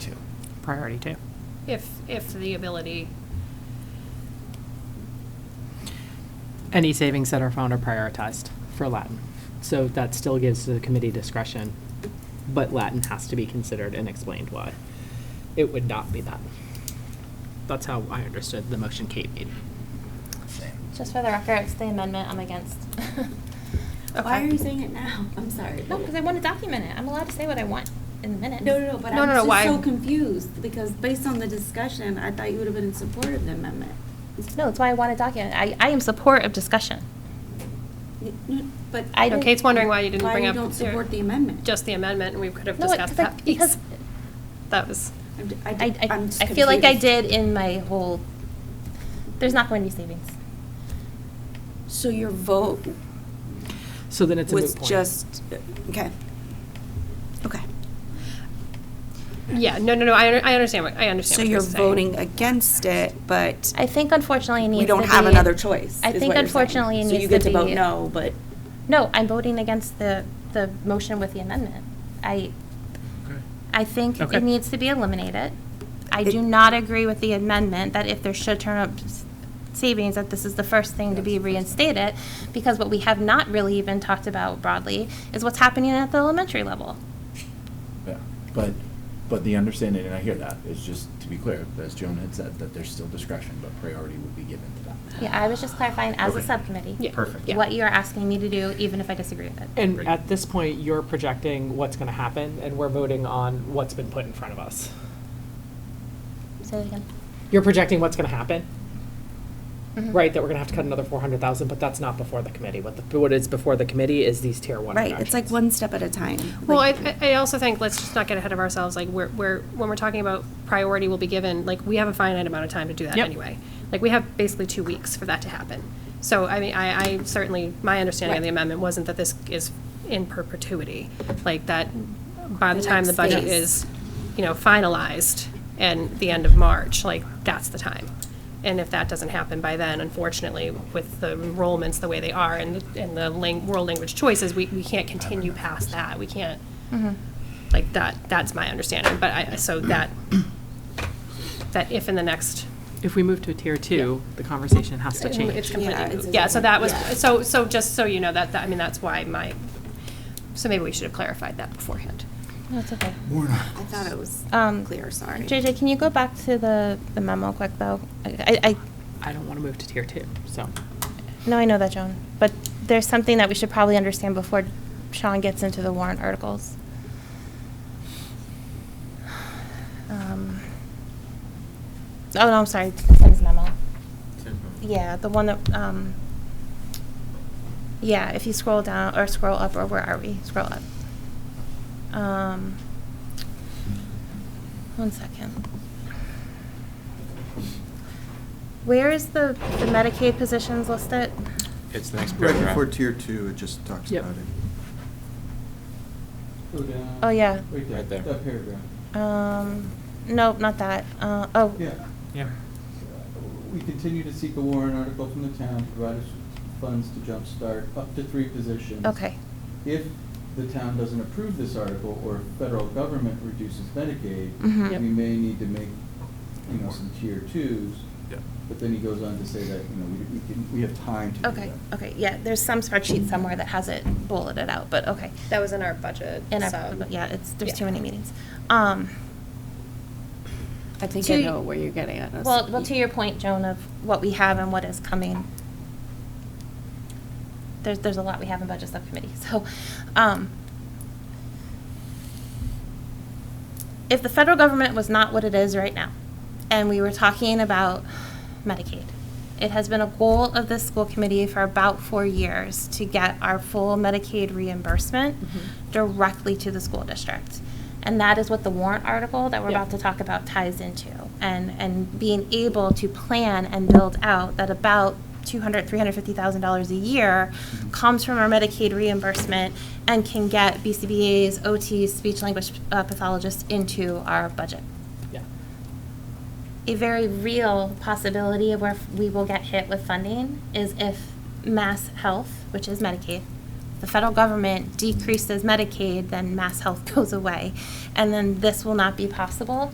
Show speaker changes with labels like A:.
A: priority to.
B: if, if the ability,
A: Any savings that are found are prioritized for Latin. So that still gives the committee discretion, but Latin has to be considered and explained why. It would not be that. That's how I understood the motion Kate made.
C: Just for the record, it's the amendment I'm against.
B: Okay.
D: Why are you saying it now? I'm sorry.
C: No, because I want to document it. I'm allowed to say what I want in the minutes.
D: No, no, no, but
B: No,
D: I'm
B: no, no, why-
D: just so confused, because based on the discussion, I thought you would have been in support of the amendment.
C: No, that's why I want to document. it. I, I am support of discussion.
D: N- n- But.
C: I
B: No,
C: didn't-
B: Kate's wondering why you didn't bring up.
D: Why you don't
B: your-
D: support the amendment?
B: Just the amendment, and we could have
C: No, it-
B: discussed
C: 'cause I-
B: that piece.
C: because
B: That was,
D: I'm d-
C: uh, I,
D: I, d-
C: I,
D: I'm just
C: I feel like I
D: confused.
C: did in my whole, there's not going to be savings.
D: So your vote
A: So then it's a moot
D: was
A: point.
D: just, okay. Okay.
B: yeah, no, no, no, I, under- I understand what, I understand
D: So
B: what
D: you're
B: saying.
D: voting against it, but
C: I think unfortunately it needs to be.
D: we don't have another choice,
C: I think
D: is what you're saying.
C: unfortunately it needs to
D: So you get to vote
C: be-
D: no, but.
C: No, I'm voting against the, the motion with the amendment. I, I think
A: Okay.
C: it needs to be eliminated. I do
D: It-
C: not agree with the amendment that if there should turn up s- savings, that this is the first thing to be reinstated, because what we have not really even talked about broadly is what's happening at the elementary level.
E: Yeah, but, but the understanding, and I hear that, is just to be clear, as Joan had said, that there's still discretion, but priority would be given to that.
C: Yeah, I was just clarifying as a
E: Okay.
C: subcommittee.
B: Yeah.
E: Perfect.
B: Yeah.
C: What you are asking me to do, even if I disagree with it.
A: And at this point, you're projecting what's going to happen, and we're voting on what's been put in front of us.
C: Say it again.
A: You're projecting what's going to happen,
D: Mm-hmm.
C: Mhm.
A: right? That we're going to have to cut another 400,000, but that's not before the committee. What the, what is before the committee is these tier one
D: Right, it's like
A: reductions.
D: one step at a time.
B: Well, I,
D: Like-
B: I I also think, let's just not get ahead of ourselves, like, we're, we're, when we're talking about priority will be given, like, we have a finite amount of time to do that
A: Yep.
B: anyway. Like, we have basically two weeks for that to happen. So, I mean, I, I certainly, my understanding of the
A: Right.
B: amendment wasn't that this is in perpetuity. Like, that by the
D: The
B: time the
D: next
B: budget
D: phase.
B: is, you know, finalized and the end of March, like, that's the time. And if that doesn't happen by then, unfortunately, with the enrollments the way they are and, the- and the lang, world language choices, we, we can't continue past that. We can't,
C: Mm-hmm.
B: like that, that's my understanding, but I, so that, that if in the next.
A: If we move to a tier two, the conversation has to
B: It's
A: change.
D: Yeah,
B: completely,
D: it's
B: moot. yeah, so that was,
D: exactly-
B: so, so just so you know, that, that, I mean, that's why my, so maybe we should have clarified that beforehand.
C: No, it's okay.
D: I thought it was
C: Um,
D: clear, sorry.
C: JJ, can you go back to the, the memo quick though? I, I, I-
A: I don't want to move to tier two, so.
C: No, I know that, Joan, but there's something that we should probably understand before Sean gets into the warrant articles. Um, Oh, no, I'm sorry, Tim's memo. Yeah, the one that, um, yeah, if you scroll down, or scroll up, or where are we? Scroll up. Um, One second. Where is the the Medicaid positions listed?
F: It's the next
G: Right
F: paragraph.
G: before tier two, it just talks
A: Yep.
G: about it.
H: Go down.
C: Oh, yeah.
H: Right there.
F: Right there.
H: That paragraph.
C: Um, nope, not that. Uh, oh.
H: Yeah.
A: Yeah.
H: We continue to seek a warrant article from the town, provide us with funds to jumpstart up to three positions.
C: Okay.
H: If the town doesn't approve this article, or if federal government reduces Medicaid,
C: Mhm.
H: we
C: Yep.
H: may need to make, you know, some tier twos.
F: Yeah.
H: But then he goes on to say that, you know, we, we can, we have time to do that.
C: Okay, okay, yeah, there's some spreadsheet somewhere that has it bulleted out, but okay.
B: That was in our budget,
C: And I, yeah, it's, there's
B: yeah.
C: too many meetings. Um,
D: I think
C: to-
D: I know where you're getting at.
C: well, well, to your point, Joan, of what we have and what is coming. There's, there's a lot we have in budget subcommittee, so, um, if the federal government was not what it is right now, and we were talking about Medicaid, it has been a goal of this school committee for about four years to get our full Medicaid reimbursement directly to the school district. And that is what the warrant article that we're
A: Yeah.
C: about to talk about ties into. And, and being able to plan and build out that about $200,000, $350,000 a year comes from our Medicaid reimbursement and can get BCBA's, OTs, speech language uh, pathologists into our budget.
A: Yeah.
C: A very real possibility of where we will get hit with funding is if Mass Health, which is Medicaid, the federal government decreases Medicaid, then Mass Health goes away. And then this will not be possible